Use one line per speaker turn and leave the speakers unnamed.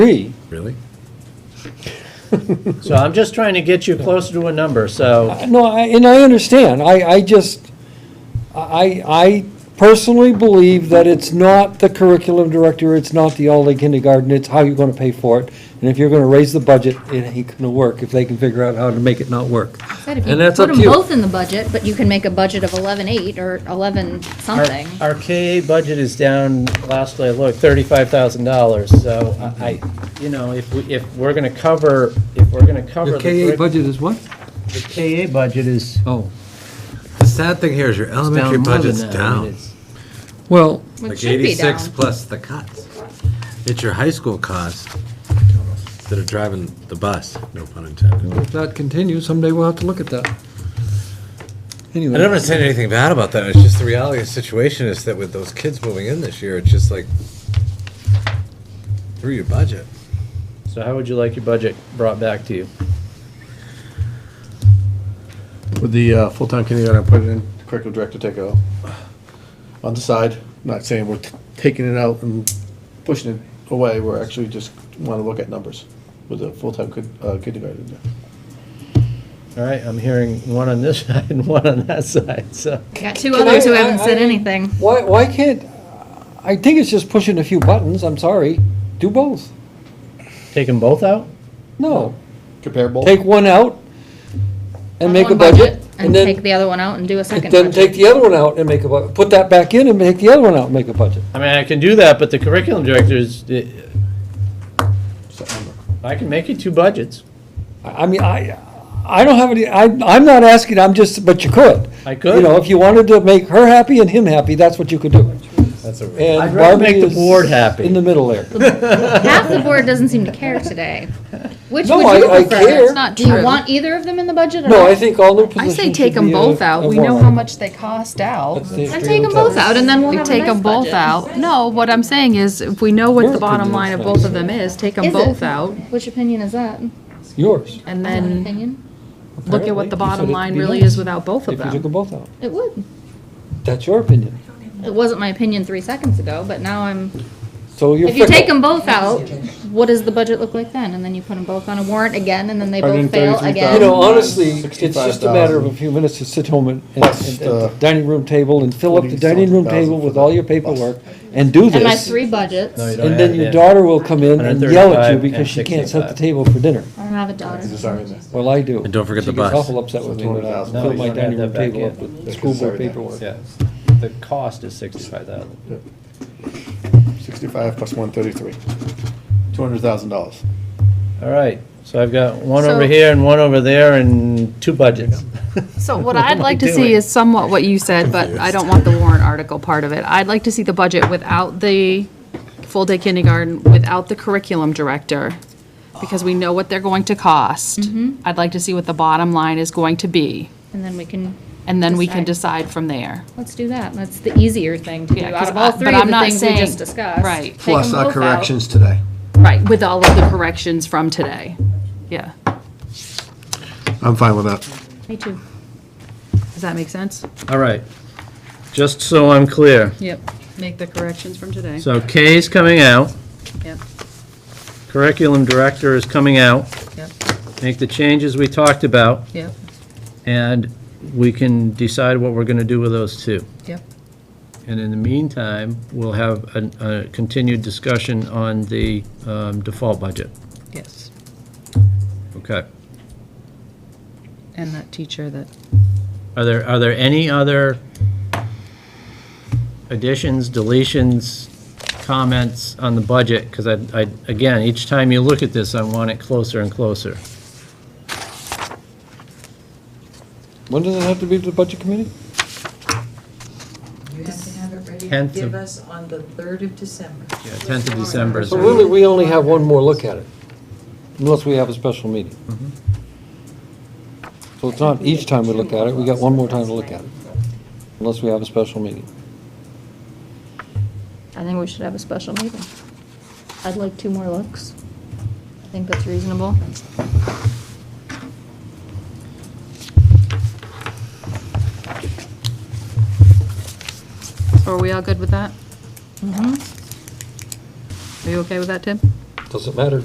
agree.
Really?
So I'm just trying to get you closer to a number, so,
No, I- and I understand, I, I just, I, I personally believe that it's not the curriculum director, it's not the all-day kindergarten, it's how you're gonna pay for it. And if you're gonna raise the budget, it ain't gonna work if they can figure out how to make it not work.
Said if you
And that's up to
Put them
you.
both in the budget, but you can make a budget of eleven-eight or eleven
our,
something.
our KA budget is down, last I looked, thirty-five thousand dollars, so I, I- you know, if, we if we're gonna cover, if we're gonna cover.
Your
the
KA
curric-
budget is what?
The KA budget is down
Oh,
The sad thing here is your elementary
more than
budget's
that. I mean,
down.
it's-
well,
It
Like
should be down.
eighty-six plus the cuts. It's your high school costs that are driving the bus, no pun intended.
if that continues, someday we'll have to look at that.
I
Anyway,
never said anything bad about that, it's just the reality of the situation is that with those kids moving in this year, it's just like, through your budget.
So how would you like your budget brought back to you?
With the uh, full-time kindergarten, I put it in curriculum director take out on the side. Not saying we're t- taking it out and pushing it away. We're actually just want to look at numbers with the full-time kid- uh, kindergarten. in there.
All right, I'm hearing one on this side and one on that side, so.
We Got two
Can
others
I-
who
I-
haven't said
I-
anything.
why, why can't, I think it's just pushing a few buttons, I'm sorry, do both.
Take them both out?
No,
Comparable.
take one out and make a
One
budget, and
take
then,
the other one out and do a second
then take
budget.
the other one out and make a budget, put that back in and make the other one out and make a budget.
I mean, I can do that, but the curriculum directors, eh,
September.
I can make you two budgets.
I I mean, I, I don't have any, I, I'm not asking, I'm just, but you could.
I could.
You know, if you wanted to make her happy and him happy, that's what you could do.
That's a.
And
I'd rather
Barbie
make the
is
board happy.
In the middle there.
Half the board doesn't seem to care today. Which
No,
would you
I- I
prefer?
care.
That's not Do you want either of them in the budget or
No, I
not?
think all new
I
positions should be.
say take them
a-
both out,
a
we know
warrant.
how much they cost out.
That's the
Then take them
stereotype.
both out and then we'll
We
have a
take
nice
them both
budget.
out, no, what I'm saying is, if we know
Your
what the bottom
opinion
line
is
of
what I'm
both of them is, take them
Is it?
both out,
Which opinion is that?
Um,
Yours.
and
Is that an
then
opinion?
look at what
Apparently,
the
you said
bottom
it'd
line
be
really
nice
is without both of
If you took them
them.
both out.
It would.
That's your opinion.
It wasn't my opinion three seconds ago, but now I'm,
So you're
if you take
fickle.
them both out, what does the budget look like then? And then you put them both on a warrant again and then they both fail again.
You know,
Um,
honestly, it's just a matter of a few minutes to sit home and, and-
Plus
and- and
the
dining room table and fill up the dining room
40-something
table with
thousand
all your paperwork and do
And my
this.
three budgets.
No, you
I
don't
And then
add
your
it.
daughter will come in and yell at you
135
because
and
she can't set the
65.
table for dinner.
don't have a daughter.
Is this already in there?
Well, I do.
And don't forget the
She
bus.
gets awful upset with me when I
$200,000.
fill
No,
my
you don't
dining
add
room
that back
table up
in.
with school board paperwork.
Yeah, the cost is sixty-five thousand.
65 plus 133. $200,000.
All right, so I've got one
So-
over here and one over there and two budgets.
So what
What
I'd
am I
like to
doing?
see is somewhat what you said, but I don't want the warrant article part of it. I'd like to see the budget without the full-day kindergarten, without the curriculum director, because we know what they're going to cost. I'd like to see what the bottom line is going to be.
And then we can,
And then we can
Decide.
decide from there.
let's do that. That's the easier thing to do
Yeah,
out
'cause
of all
I-
three
but
of
I'm
the
not
things we
saying-
just discussed.
right.
Take
Plus
them
our
both out.
corrections today.
Right, with all of the corrections from today. Yeah.
I'm fine with that.
Me too.
Does that make sense?
All right, just so I'm clear,
Yep. Make the corrections from today.
so K is coming out,
Yep,
curriculum director is coming out,
yep,
make the changes we talked about,
yep,
and we can decide what we're gonna do with those two.
yep.
And in the meantime, we'll have an- a continued discussion on the um, default budget.
Yes.
Okay.
And that teacher that
Are there, are there any other additions, deletions, comments on the budget? Because I, I, again, each time you look at this, I want it closer and closer.
When does it have to be to the budget committee?
You have to have it ready to
Tenth of-
give us on the 3rd of December.
Yeah, 10th of December is.
So really, we only have one more look at it, unless we have a special meeting. So it's not each time we look at it, we got one more time to look at it, unless we have a special meeting.
I think we should have a special meeting. I'd like two more looks. I think that's reasonable.
So are we all good with that? Mm-hmm. Are you okay with that, Tim?
Doesn't matter